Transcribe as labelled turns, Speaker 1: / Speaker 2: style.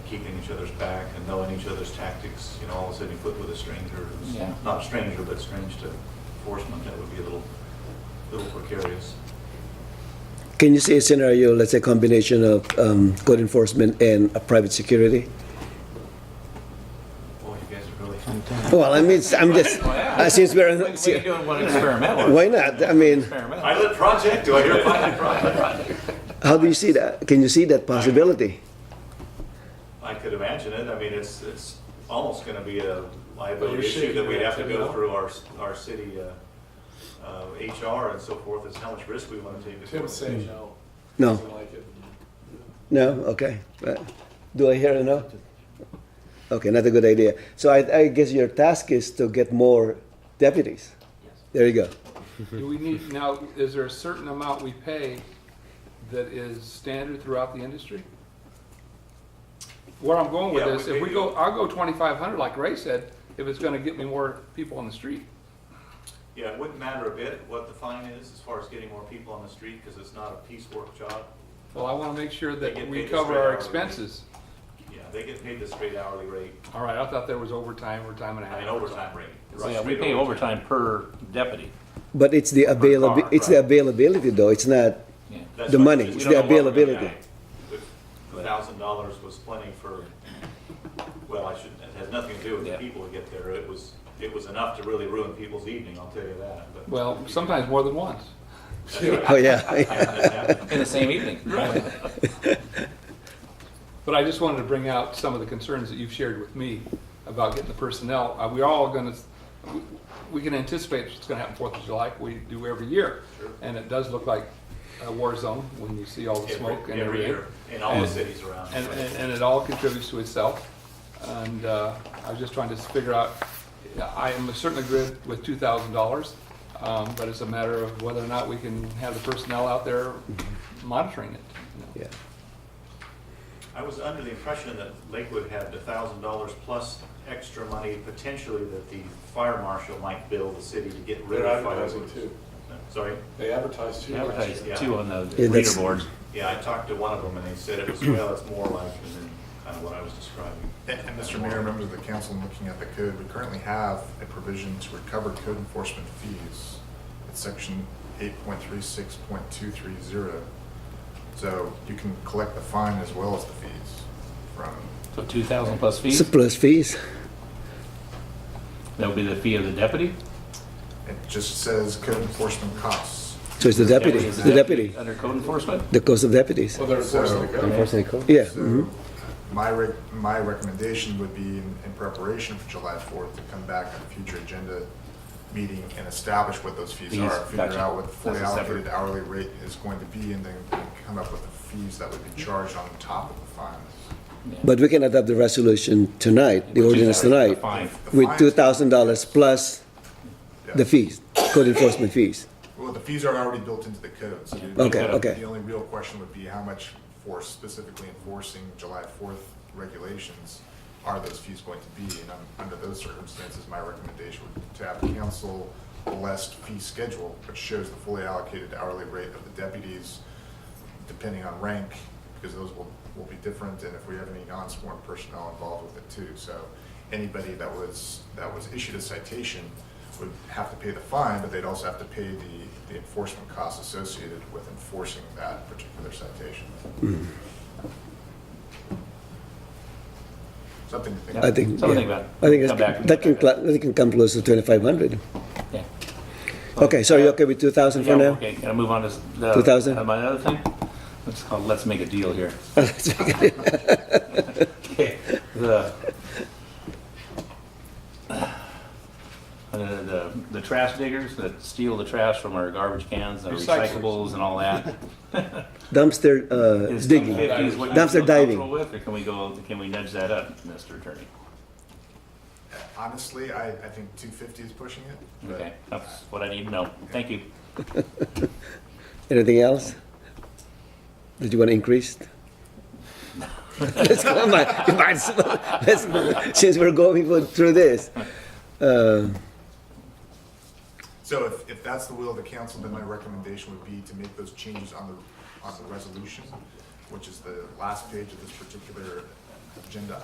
Speaker 1: keeping each other's back and knowing each other's tactics, you know, all of a sudden you put with a stranger who's
Speaker 2: Yeah.
Speaker 1: not a stranger, but strange to enforcement, that would be a little, little precarious.
Speaker 3: Can you see a scenario, let's say combination of um, code enforcement and a private security?
Speaker 1: Boy, you guys are really,
Speaker 3: Well, I mean, it's- I'm just, uh, since we're,
Speaker 2: We- We're
Speaker 3: on-
Speaker 2: doing one experimental.
Speaker 3: why not? I mean,
Speaker 2: Experimental.
Speaker 1: pilot project, do I hear pilot project?
Speaker 3: how do you see that? Can you see that possibility?
Speaker 1: I could imagine it, I mean, it's, it's almost gonna be a
Speaker 4: You're
Speaker 1: liability issue
Speaker 4: shaking
Speaker 1: that we'd
Speaker 4: your
Speaker 1: have to
Speaker 4: head,
Speaker 1: go
Speaker 4: no?
Speaker 1: through our, our city, uh, uh, HR and so forth, is how much risk we wanna take. before-
Speaker 4: Tim
Speaker 5: Hmm.
Speaker 4: say no.
Speaker 3: No.
Speaker 4: Doesn't like it.
Speaker 3: No? Okay. Uh, Do I hear a no? Okay, not a good idea. So I, I guess your task is to get more deputies. There you go.
Speaker 5: Do we need, now, is there a certain amount we pay that is standard throughout the industry? Where I'm going with
Speaker 1: Yeah,
Speaker 5: this,
Speaker 1: we-
Speaker 5: if we
Speaker 1: we-
Speaker 5: go, I'll go twenty-five hundred, like Ray said, if it's gonna get me more people on the street.
Speaker 1: Yeah, it wouldn't matter a bit what the fine is as far as getting more people on the street, because it's not a piecework job.
Speaker 5: Well, I wanna make sure
Speaker 1: They
Speaker 5: that
Speaker 1: get
Speaker 5: we
Speaker 1: paid the
Speaker 5: cover
Speaker 1: straight
Speaker 5: our
Speaker 1: hourly rate.
Speaker 5: expenses.
Speaker 1: Yeah, they get paid the straight hourly rate
Speaker 5: All right, I thought there was overtime or time and a half.
Speaker 1: and overtime rate. It's a
Speaker 2: Yeah, we
Speaker 1: straight
Speaker 2: pay overtime per deputy.
Speaker 3: But it's the availability, it's the availability though. It's not,
Speaker 2: Yeah.
Speaker 1: That's
Speaker 3: the
Speaker 1: why
Speaker 3: money,
Speaker 1: we
Speaker 3: it's
Speaker 1: don't
Speaker 3: the
Speaker 1: know what we're gonna
Speaker 3: availability.
Speaker 1: pay. The thousand dollars was plenty for, well, I shouldn't, it has nothing to do with the
Speaker 2: Yeah.
Speaker 1: people who get there. It was, it was enough to really ruin people's evening, I'll tell you that, but.
Speaker 5: Well, sometimes more than once.
Speaker 3: oh yeah.
Speaker 1: That happened.
Speaker 2: In the same evening.
Speaker 5: But I just wanted to bring out some of the concerns that you've shared with me about getting the personnel. Are we all gonna, we can anticipate what's gonna happen Fourth of July, we do every year. And it does look like a war zone when you see all the smoke
Speaker 1: Every
Speaker 5: and
Speaker 1: every
Speaker 5: everything.
Speaker 1: year, in all the cities around.
Speaker 5: And, and, and it all contributes to itself. And, uh, I was just trying to figure out, I am certainly good with two thousand dollars. Um, but it's a matter of whether or not we can have the personnel out there monitoring it. you know.
Speaker 3: Yeah.
Speaker 1: I was under the impression that Lakewood had a thousand dollars plus extra money potentially that the fire marshal might bill the city to get rid
Speaker 4: They're
Speaker 1: of
Speaker 4: advertising
Speaker 1: fireworks.
Speaker 4: too.
Speaker 1: Sorry?
Speaker 4: They advertise too. last
Speaker 2: Advertise
Speaker 1: Yeah.
Speaker 2: too on the
Speaker 3: Yeah,
Speaker 2: reader
Speaker 3: that's-
Speaker 2: boards.
Speaker 1: Yeah, I talked to one of them and they said it was, well, it's more like, and then kind of what I was describing.
Speaker 6: And and Mr. Mayor, members of the council, I'm looking at the code, we currently have a provision to recover code enforcement fees. It's section eight point three six point two three zero. So you can collect the fine as well as the fees from,
Speaker 2: So two thousand plus fees,
Speaker 3: Surplus fees.
Speaker 2: that would be the fee of the deputy?
Speaker 6: it just says code enforcement costs.
Speaker 3: So it's the deputy,
Speaker 2: Is
Speaker 3: the deputy,
Speaker 2: Under code enforcement?
Speaker 3: the cost of deputies.
Speaker 4: year. Well, they're enforcing the code.
Speaker 3: Yeah.
Speaker 6: So my rec, my recommendation would be in in preparation for July fourth, to come back on a future agenda meeting and establish what those fees
Speaker 2: Fees,
Speaker 6: are, figure
Speaker 2: gotcha.
Speaker 6: out what the fully
Speaker 2: That's a separate-
Speaker 6: allocated hourly rate is going to be, and then come up with the fees that would be charged on top of the fines.
Speaker 3: But we can adopt the resolution tonight, the ordinance tonight,
Speaker 2: Fine.
Speaker 6: The
Speaker 3: with
Speaker 6: fines-
Speaker 3: two thousand dollars plus
Speaker 6: yeah.
Speaker 3: the fees, code enforcement fees.
Speaker 6: Well, the fees are already built into the code, so. the-
Speaker 3: Okay, okay.
Speaker 6: The only real question would be how much for specifically enforcing July fourth regulations are those fees going to be? And um, under those circumstances, my recommendation would be to have the council list fee schedule, which shows the fully allocated hourly rate of the deputies, depending on rank, because those will, will be different, and if we have any non-sworn personnel involved with it too. So anybody that was, that was issued a citation would have to pay the fine, but they'd also have to pay the, the enforcement costs associated with enforcing that particular citation. Something to think
Speaker 2: Yeah.
Speaker 3: I think,
Speaker 2: So we'll
Speaker 3: yeah.
Speaker 2: think about it.
Speaker 3: I think
Speaker 2: Come
Speaker 3: that's-
Speaker 2: back and-
Speaker 3: that can, cla- that can come close to twenty-five hundred.
Speaker 2: Yeah.
Speaker 3: Okay, so you okay with two thousand
Speaker 2: Yeah,
Speaker 3: for now?
Speaker 2: okay, gotta move on to. s- the-
Speaker 3: 2000?
Speaker 2: uh, My other thing, it's called Let's Make a Deal here. Okay, the, uh, the, the trash diggers that steal the trash from our garbage cans and our
Speaker 5: Recyclers.
Speaker 2: recyclables and all that.
Speaker 3: Dumpster, uh,
Speaker 2: Is
Speaker 3: digging.
Speaker 2: 250 is what you
Speaker 3: Dumpster
Speaker 2: feel
Speaker 3: diving.
Speaker 2: comfortable with, Or can we go, can we nudge that up, Mr. Attorney?
Speaker 6: Honestly, I, I think two fifty is pushing it. but-
Speaker 2: Okay, that's what I need to know. Thank you.
Speaker 3: Anything else? Did you want to increase? Let's go, man. You might as well- let's go. Since we're going for- through this. Uh,
Speaker 6: So if, if that's the will of the council, then my recommendation would be to make those changes on the, on the resolution, which is the last page of this particular agenda